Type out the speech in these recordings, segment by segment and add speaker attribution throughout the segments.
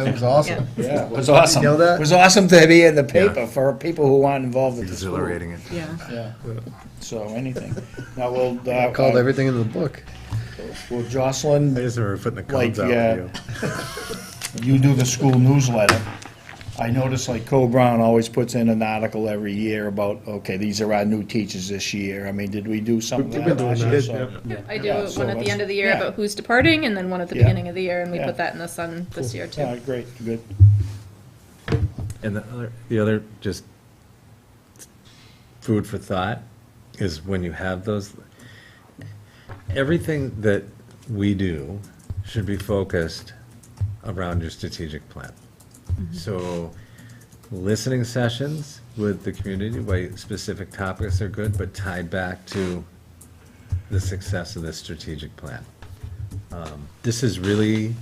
Speaker 1: It was awesome.
Speaker 2: Yeah, it was awesome.
Speaker 1: know that?
Speaker 2: It was awesome to be in the
Speaker 3: Yeah.
Speaker 2: paper for people who aren't involved with the school.
Speaker 3: Exhilarating. and-
Speaker 4: Yeah.
Speaker 2: Yeah, so anything. Now, we'll,
Speaker 1: I Called
Speaker 2: uh,
Speaker 1: everything in the book.
Speaker 2: will Jocelyn
Speaker 5: I just remember putting the
Speaker 2: Like,
Speaker 5: cones out
Speaker 2: yeah.
Speaker 5: for you.
Speaker 2: you do the school newsletter. I notice like Cole Brown always puts in an article every year about, okay, these are our new teachers this year. I mean, did we do something?
Speaker 5: We've
Speaker 2: like
Speaker 5: been doing
Speaker 2: last
Speaker 5: that,
Speaker 2: year? So-
Speaker 5: yep.
Speaker 4: I do
Speaker 2: Yeah,
Speaker 4: one
Speaker 2: so
Speaker 4: at the
Speaker 2: let's-
Speaker 4: end of the year
Speaker 2: yeah.
Speaker 4: about who's departing, and then one at the
Speaker 2: Yeah.
Speaker 4: beginning of the year, and we
Speaker 2: Yeah.
Speaker 4: put that in the sun this year too.
Speaker 2: Yeah, great, good.
Speaker 3: And the other, the other just food for thought is when you have those, everything that we do should be focused around your strategic plan. So listening sessions with the community, where specific topics are good, but tied back to the success of the strategic plan. Um, This is really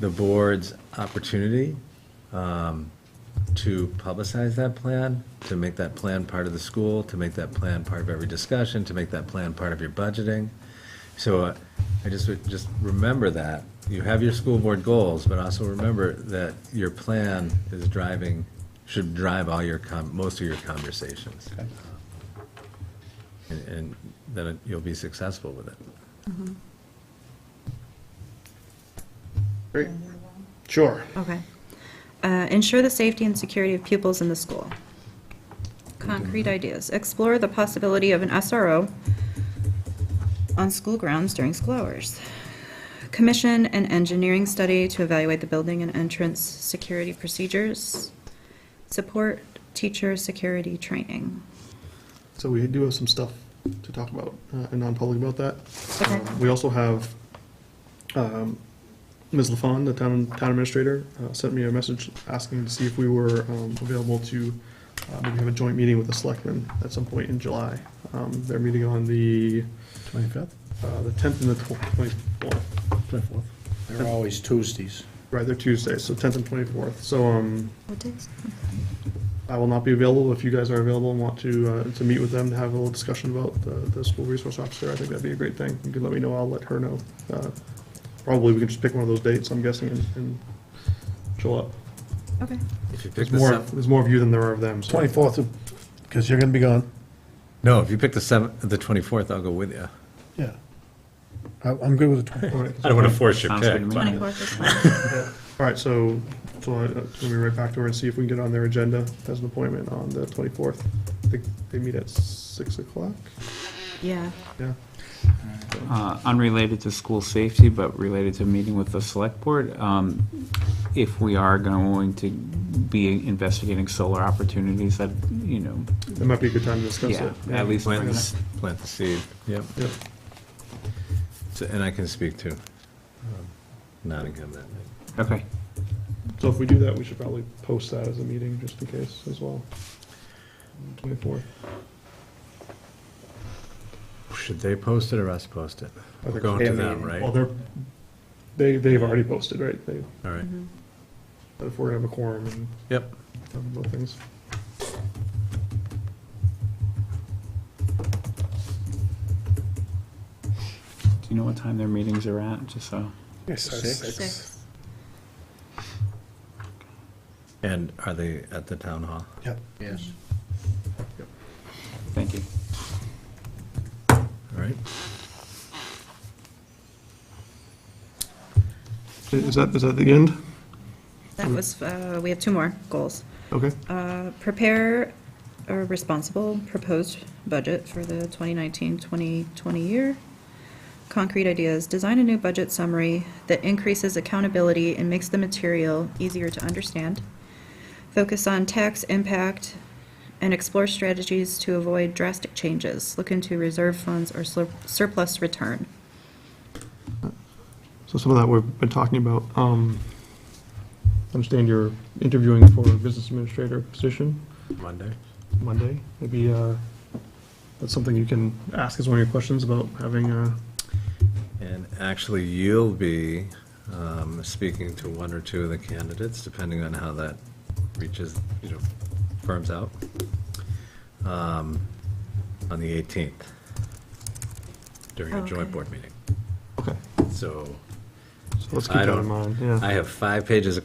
Speaker 3: the board's opportunity to publicize that plan, to make that plan part of the school, to make that plan part of every discussion, to make that plan part of your budgeting. So uh, I just, would- just remember that. You have your school board goals, but also remember that your plan is driving, should drive all your, com- most of your conversations. And- And then you'll be successful with it.
Speaker 2: Sure.
Speaker 6: Okay. Uh, Ensure the safety and security of pupils in the school. Concrete ideas. Explore the possibility of an SRO on school grounds during school hours. Commission an engineering study to evaluate the building and entrance security procedures. Support teacher security training.
Speaker 7: So we do have some stuff to talk about uh, in non-public about that.
Speaker 6: Okay.
Speaker 7: Um, We also have um, Ms. LaFawn, the town town administrator, uh, sent me a message asking to see if we were um, available to uh, maybe have a joint meeting with the selectmen at some point in July. Um, They're meeting on the,
Speaker 5: Twenty-fifth,
Speaker 7: uh, the 10th and the 24th.
Speaker 5: twenty-fourth.
Speaker 2: They're always Tuesdays.
Speaker 7: Right, they're Tuesdays, so 10th and 24th. So um,
Speaker 6: What days?
Speaker 7: I will not be available. If you guys are available and want to, uh, to meet with them, to have a little discussion about the, the school resource officer, I think that'd be a great thing. You can let me know, I'll let her know. Uh, Probably we can just pick one of those dates, I'm guessing, and, and show up.
Speaker 6: Okay.
Speaker 3: If you pick
Speaker 7: There's
Speaker 3: the
Speaker 7: more,
Speaker 3: seven,
Speaker 7: there's more of you than there are of them, so.
Speaker 5: Twenty-fourth, because you're gonna be gone.
Speaker 3: no, if you pick the seventh, the twenty-fourth, I'll go with you.
Speaker 5: Yeah. I, I'm good with the twenty-fourth.
Speaker 7: All right.
Speaker 3: I don't want to force your
Speaker 8: Sounds good
Speaker 3: pick.
Speaker 8: to me.
Speaker 3: but-
Speaker 6: 24th is fine.
Speaker 7: All right, so, so I- uh, let me right back to her and see if we can get on their agenda as an appointment on the twenty-fourth. I think they meet at six o'clock,
Speaker 6: Yeah.
Speaker 7: yeah.
Speaker 8: Uh, Unrelated to school safety, but related to meeting with the select board, um, if we are going to be investigating solar opportunities, that, you know,
Speaker 7: That might be a good time to discuss
Speaker 8: yeah,
Speaker 7: it.
Speaker 8: at least.
Speaker 3: Plant
Speaker 8: bring
Speaker 3: the,
Speaker 8: it up.
Speaker 3: s- plant the seed, yep.
Speaker 7: Yep.
Speaker 3: So- And I can speak to um, Nottingham that night.
Speaker 8: Okay,
Speaker 7: So if we do that, we should probably post that as a meeting, just in case as well. Twenty-fourth.
Speaker 3: Should they post it or us post it?
Speaker 7: I think-
Speaker 3: Going to them, right?
Speaker 7: Well, they're, they, they've already posted, right? They,
Speaker 3: All right,
Speaker 7: but if we're gonna have a quorum and
Speaker 3: yep.
Speaker 7: have both things.
Speaker 8: do you know what time their meetings are at, just so?
Speaker 6: Six.
Speaker 3: And are they at the town hall?
Speaker 5: Yep.
Speaker 2: Yes.
Speaker 8: Thank you.
Speaker 3: All right.
Speaker 7: Is that, is that the end?
Speaker 6: That was, uh, we have two more goals.
Speaker 7: Okay.
Speaker 6: Uh, Prepare a responsible proposed budget for the 2019-2020 year. Concrete ideas, design a new budget summary that increases accountability and makes the material easier to understand. Focus on tax impact and explore strategies to avoid drastic changes. Look into reserve funds or sur- surplus return.
Speaker 7: So some of that we've been talking about. Um, I understand you're interviewing for a business administrator position
Speaker 3: Mm-hmm. Monday?
Speaker 7: Monday. Maybe, uh, that's something you can ask as one of your questions about having, uh,
Speaker 3: And actually, you'll be um, speaking to one or two of the candidates, depending on how that reaches, you know, firms out, um, on the 18th, during a joint
Speaker 6: Okay.
Speaker 3: board meeting.
Speaker 7: okay,
Speaker 3: So
Speaker 7: so let's keep
Speaker 3: I
Speaker 7: that
Speaker 3: don't-
Speaker 7: in mind, yeah.
Speaker 3: I have five pages of